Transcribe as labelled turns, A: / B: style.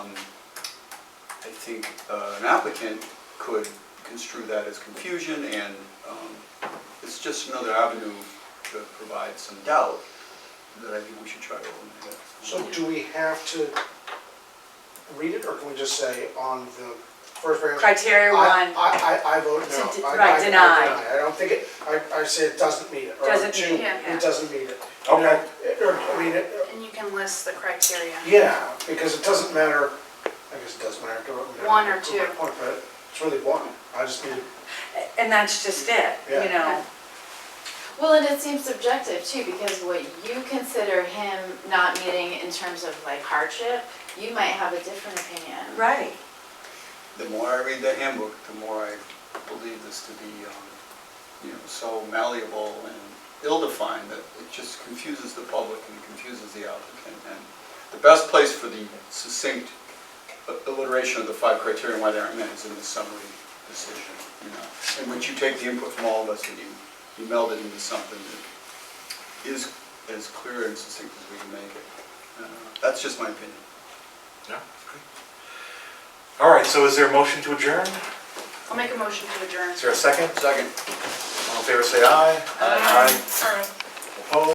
A: Um, think uh, an applicant could construe that as confusion, and um, it's just another avenue to provide some doubt that I think we should try to eliminate.
B: So do we have to read it, or can we just say on the first paragraph?
C: Criteria
B: I,
C: one,
B: I, I- I vote
C: To de-
B: no. I- I-
C: right,
B: I
C: deny.
B: I don't think it, I, I say it doesn't meet it. or
C: Doesn't
B: two,
C: meet it, yeah.
B: It doesn't meet it.
D: Okay.
B: Or, I mean, it-
E: And you can list the criteria.
B: yeah, because it doesn't matter, I guess it does matter. to-
E: One or
B: to my
E: two.
B: point, But it's really one, I just need,
C: and that's just it, you
B: Yeah.
C: know?
F: Well, and it seems subjective too, because what you consider him not meeting in terms of like hardship, you might have a different opinion.
C: Right.
A: The more I read the handbook, the more I believe this to be, um, you know, so malleable and ill-defined that it just confuses the public and it confuses the applicant. And the best place for the succinct alliteration of the five criteria and why they aren't met is in the summary decision, you know, in which you take the input from all of us and you, you meld it into something that is as clear and succinct as we can make it. Uh, That's just my opinion.
D: Yeah. All right, so is there a motion to adjourn?
E: I'll make a motion to adjourn.
D: Is there a second?
A: Second.
D: All in favor, say aye.
E: Aye. Aye.